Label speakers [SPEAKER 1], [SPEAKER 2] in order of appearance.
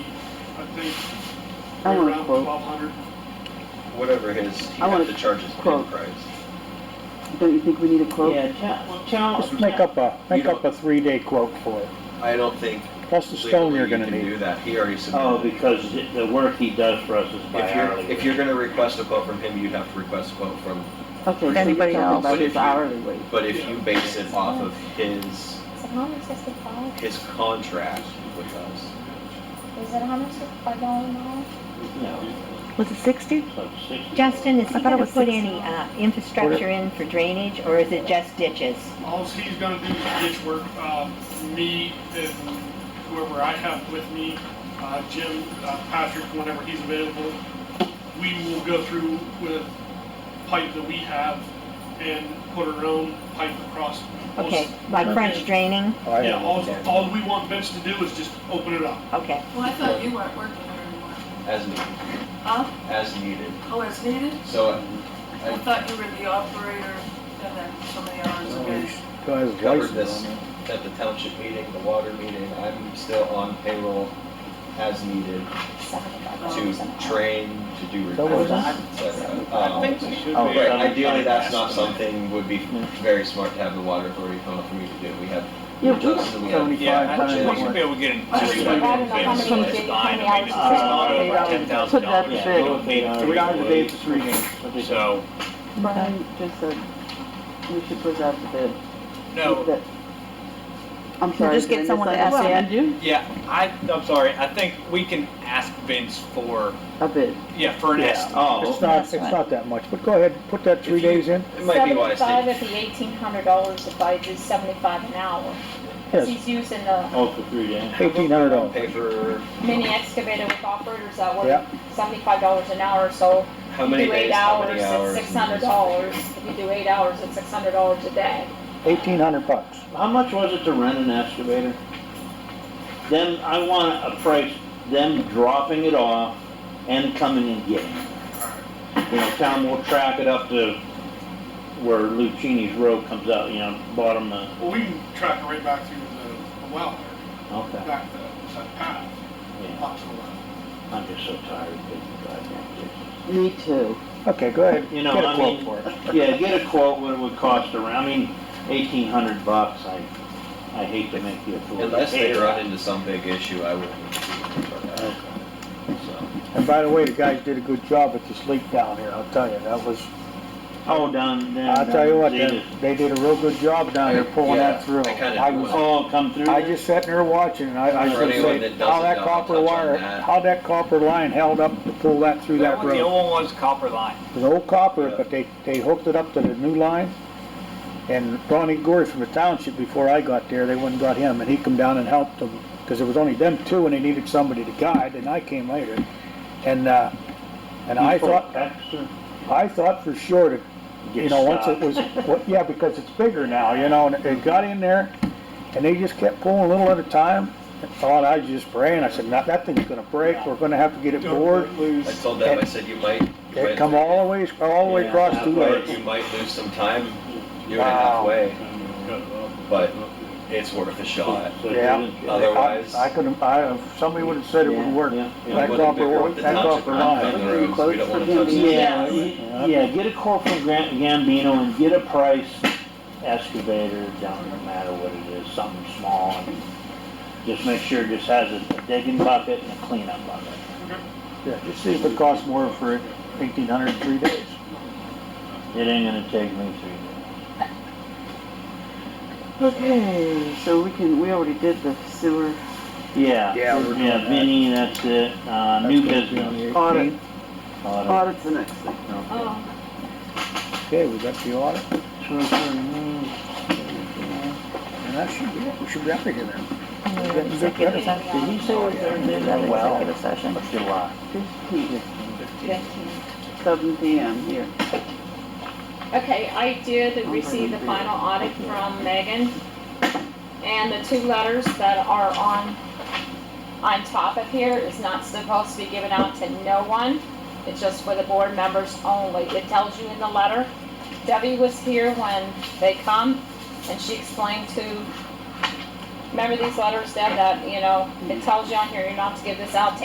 [SPEAKER 1] think
[SPEAKER 2] I want a
[SPEAKER 1] around
[SPEAKER 2] quote.
[SPEAKER 1] 1,200.
[SPEAKER 3] Whatever his, he
[SPEAKER 2] I
[SPEAKER 3] had
[SPEAKER 2] wanna
[SPEAKER 3] to charge his
[SPEAKER 2] quote.
[SPEAKER 3] bid price.
[SPEAKER 2] Don't you think we need a quote?
[SPEAKER 4] Yeah, Cha- well, Charles.
[SPEAKER 5] Just make up a, make up a three-day quote for it,
[SPEAKER 3] I don't think
[SPEAKER 5] plus the stone
[SPEAKER 3] legally
[SPEAKER 5] you're
[SPEAKER 3] you
[SPEAKER 5] gonna
[SPEAKER 3] can do
[SPEAKER 5] need.
[SPEAKER 3] that. He already
[SPEAKER 4] Oh,
[SPEAKER 3] submitted. it.
[SPEAKER 4] because the work he does for us is by
[SPEAKER 3] If you're,
[SPEAKER 4] hourly.
[SPEAKER 3] if you're gonna request a quote from him, you'd have to request a quote from,
[SPEAKER 2] Okay, so you're
[SPEAKER 6] Anybody else?
[SPEAKER 2] talking about
[SPEAKER 3] But
[SPEAKER 2] his
[SPEAKER 3] if you-
[SPEAKER 2] hourly wage.
[SPEAKER 3] but if you base it off of his,
[SPEAKER 7] Is it how much does it cost?
[SPEAKER 3] his contract with us.
[SPEAKER 7] Is it how much by going on?
[SPEAKER 4] No,
[SPEAKER 6] Was it 60?
[SPEAKER 4] it's like sixty.
[SPEAKER 8] Justin,
[SPEAKER 6] I
[SPEAKER 8] is he
[SPEAKER 6] thought it
[SPEAKER 8] gonna
[SPEAKER 6] was
[SPEAKER 8] put
[SPEAKER 6] six.
[SPEAKER 8] any uh, infrastructure in for drainage, or is it just ditches?
[SPEAKER 1] All he's gonna do is ditch work, um, me and whoever I have with me, uh, Jim, uh, Patrick, whenever he's available. We will go through with pipe that we have and put our own pipe across.
[SPEAKER 8] Okay, like French draining?
[SPEAKER 5] Oh, I
[SPEAKER 1] Yeah,
[SPEAKER 5] don't
[SPEAKER 1] all,
[SPEAKER 5] understand.
[SPEAKER 1] all we want Vince to do is just open it up.
[SPEAKER 8] Okay,
[SPEAKER 9] Well, I thought you weren't working there anymore.
[SPEAKER 3] As needed.
[SPEAKER 9] Huh?
[SPEAKER 3] As needed.
[SPEAKER 9] Oh, as needed?
[SPEAKER 3] So uh,
[SPEAKER 9] I thought you were the operator and then so many hours a day.
[SPEAKER 5] Still has
[SPEAKER 3] I covered
[SPEAKER 5] license
[SPEAKER 3] this
[SPEAKER 5] on it.
[SPEAKER 3] at the township meeting, the water meeting. I'm still on payroll as needed
[SPEAKER 2] Oh,
[SPEAKER 3] to train, to do
[SPEAKER 5] That was-
[SPEAKER 3] reports, et cetera.
[SPEAKER 4] I
[SPEAKER 3] Um,
[SPEAKER 4] think we should be.
[SPEAKER 5] Oh,
[SPEAKER 3] Right,
[SPEAKER 4] some
[SPEAKER 3] ideally,
[SPEAKER 4] kind
[SPEAKER 3] that's
[SPEAKER 4] of
[SPEAKER 3] not
[SPEAKER 4] estimate.
[SPEAKER 3] something would be very smart to have the water authority come up for me to do. We have, we
[SPEAKER 2] Yeah,
[SPEAKER 3] have
[SPEAKER 2] we-
[SPEAKER 3] Justin, we have.
[SPEAKER 5] Seventy-five
[SPEAKER 3] actually,
[SPEAKER 5] times
[SPEAKER 3] we
[SPEAKER 5] what-
[SPEAKER 10] able to get in.
[SPEAKER 7] I don't know how many
[SPEAKER 2] Some-
[SPEAKER 7] days, how many hours.
[SPEAKER 8] Uh,
[SPEAKER 2] eight hours. Put that to
[SPEAKER 4] Yeah,
[SPEAKER 2] bed.
[SPEAKER 4] go with eight hours.
[SPEAKER 5] Three hours a day for three days.
[SPEAKER 4] What'd you say?
[SPEAKER 10] So,
[SPEAKER 2] Brian just said we should put it out to bid.
[SPEAKER 10] no,
[SPEAKER 2] That- I'm sorry.
[SPEAKER 6] just
[SPEAKER 2] did I
[SPEAKER 6] get someone to ask
[SPEAKER 2] misunderstand you?
[SPEAKER 10] yeah, I, I'm sorry, I think we can ask Vince for,
[SPEAKER 2] A bid.
[SPEAKER 10] yeah, for an estimate.
[SPEAKER 4] Oh,
[SPEAKER 5] It's not, it's
[SPEAKER 6] That's right.
[SPEAKER 5] not that much, but go ahead, put that three
[SPEAKER 3] If you-
[SPEAKER 5] days in,
[SPEAKER 3] It might be wise
[SPEAKER 7] Seventy-five
[SPEAKER 3] to,
[SPEAKER 7] at the eighteen hundred dollars if I do seventy-five an hour. 'Cause
[SPEAKER 5] yes,
[SPEAKER 7] He's using the
[SPEAKER 4] oh, for three days.
[SPEAKER 5] eighteen hundred dollars.
[SPEAKER 3] pay for
[SPEAKER 7] mini excavator with operators that
[SPEAKER 5] Yeah.
[SPEAKER 7] work seventy-five dollars an hour, so
[SPEAKER 3] how
[SPEAKER 7] you
[SPEAKER 3] many
[SPEAKER 7] do eight
[SPEAKER 3] days, how
[SPEAKER 7] hours,
[SPEAKER 3] many
[SPEAKER 7] it's
[SPEAKER 3] hours.
[SPEAKER 7] six hundred dollars. If you do eight hours, it's six hundred dollars a day.
[SPEAKER 5] Eighteen hundred bucks.
[SPEAKER 4] How much was it to rent an excavator? Them, I want a price, them dropping it off and coming and getting it. You know, town will track it up to where Lucchini's Road comes out, you know, bottom of,
[SPEAKER 1] Well, we can track it right back through the, the well there,
[SPEAKER 4] okay,
[SPEAKER 1] back to that path,
[SPEAKER 4] yeah.
[SPEAKER 1] up to the well.
[SPEAKER 4] I'm just so tired of taking goddamn ditches.
[SPEAKER 2] Me too.
[SPEAKER 5] Okay, go ahead,
[SPEAKER 4] You
[SPEAKER 5] get
[SPEAKER 4] know,
[SPEAKER 5] a
[SPEAKER 4] I
[SPEAKER 5] quote
[SPEAKER 4] mean-
[SPEAKER 5] for it.
[SPEAKER 4] Yeah, get a quote what it would cost around, I mean, eighteen hundred bucks, I, I hate to make you a fool.
[SPEAKER 3] Unless they
[SPEAKER 4] Hey,
[SPEAKER 3] run into some big issue, I wouldn't. Okay.
[SPEAKER 4] so.
[SPEAKER 5] And by the way, the guys did a good job at the sleep down here, I'll tell you, that was,
[SPEAKER 4] Oh, down, down.
[SPEAKER 5] I'll tell you what,
[SPEAKER 4] down-
[SPEAKER 5] they, they did a real good job down there pulling
[SPEAKER 3] Yeah,
[SPEAKER 5] that through.
[SPEAKER 3] I kinda
[SPEAKER 5] I
[SPEAKER 3] do
[SPEAKER 5] was
[SPEAKER 3] it.
[SPEAKER 4] Oh, come through?
[SPEAKER 5] I just sat there watching, and I, I
[SPEAKER 3] For
[SPEAKER 5] should
[SPEAKER 3] anyone
[SPEAKER 5] say,
[SPEAKER 3] that doesn't
[SPEAKER 5] how that
[SPEAKER 3] know,
[SPEAKER 5] copper
[SPEAKER 3] touch on
[SPEAKER 5] wire,
[SPEAKER 3] that.
[SPEAKER 5] how that copper line held up to pull that through
[SPEAKER 10] That
[SPEAKER 5] that
[SPEAKER 10] one, the
[SPEAKER 5] road.
[SPEAKER 10] old one was copper line.
[SPEAKER 5] It was old copper,
[SPEAKER 3] Yeah.
[SPEAKER 5] but they, they hooked it up to the new line. And Ronnie Gore from the township, before I got there, they went and got him, and he come down and helped them, because it was only them two, and they needed somebody to guide, and I came later. And, uh, and I thought, I thought for sure that you know, once it was, well, yeah, because it's bigger now, you know, and it got in there, and they just kept pulling a little at a time. I thought, I was just praying, I said, "Nah, that thing's gonna break, we're gonna have to get it bored.
[SPEAKER 3] I told them, I said, you might. you
[SPEAKER 5] It
[SPEAKER 3] might-
[SPEAKER 5] come all the way, all the way
[SPEAKER 4] Yeah,
[SPEAKER 5] across
[SPEAKER 4] that
[SPEAKER 5] two
[SPEAKER 3] Well,
[SPEAKER 5] legs.
[SPEAKER 3] you might lose some time, you're
[SPEAKER 5] Wow.
[SPEAKER 3] halfway, but it's worth a shot. Otherwise-
[SPEAKER 5] I could have, I, if somebody would've said it would work.
[SPEAKER 4] Yeah, yeah.
[SPEAKER 5] That
[SPEAKER 3] Would've
[SPEAKER 5] copper,
[SPEAKER 3] been worth
[SPEAKER 5] wa-
[SPEAKER 3] the
[SPEAKER 5] that
[SPEAKER 3] township
[SPEAKER 5] copper
[SPEAKER 3] not
[SPEAKER 5] line.
[SPEAKER 3] On the roads, we don't wanna touch
[SPEAKER 2] Quotes for
[SPEAKER 3] that.
[SPEAKER 4] Yeah, yeah, get a quote from Grant Gambino and get a price excavator, down no matter what it is, something small. and Just make sure it just has a digging bucket and a cleanup bucket.
[SPEAKER 5] Yeah, just see if it costs more for eighteen hundred and three days.
[SPEAKER 4] It ain't gonna take me three days.
[SPEAKER 2] Okay, so we can, we already did the sewer
[SPEAKER 4] Yeah,
[SPEAKER 5] Yeah, we're doing
[SPEAKER 4] yeah,
[SPEAKER 5] that.
[SPEAKER 4] Vinny, that's it, uh, new business.
[SPEAKER 2] audit.
[SPEAKER 4] Auto.
[SPEAKER 2] Audit's the next thing.
[SPEAKER 9] Oh.
[SPEAKER 5] Okay, we got the audit. uh, And that should be it, we should be out of here then.
[SPEAKER 6] Executive session.
[SPEAKER 4] Did he say what they're doing? Well,
[SPEAKER 6] Executive session.
[SPEAKER 4] it's July.
[SPEAKER 2] Fifteen, seven PM here.
[SPEAKER 7] Okay, I did receive the final audit from Megan, and the two letters that are on, on top of here is not supposed to be given out to no one. It's just for the board members only. It tells you in the letter. Debbie was here when they come, and she explained to, remember these letters, Deb, that, you know, it tells you on here, you're not to give this out to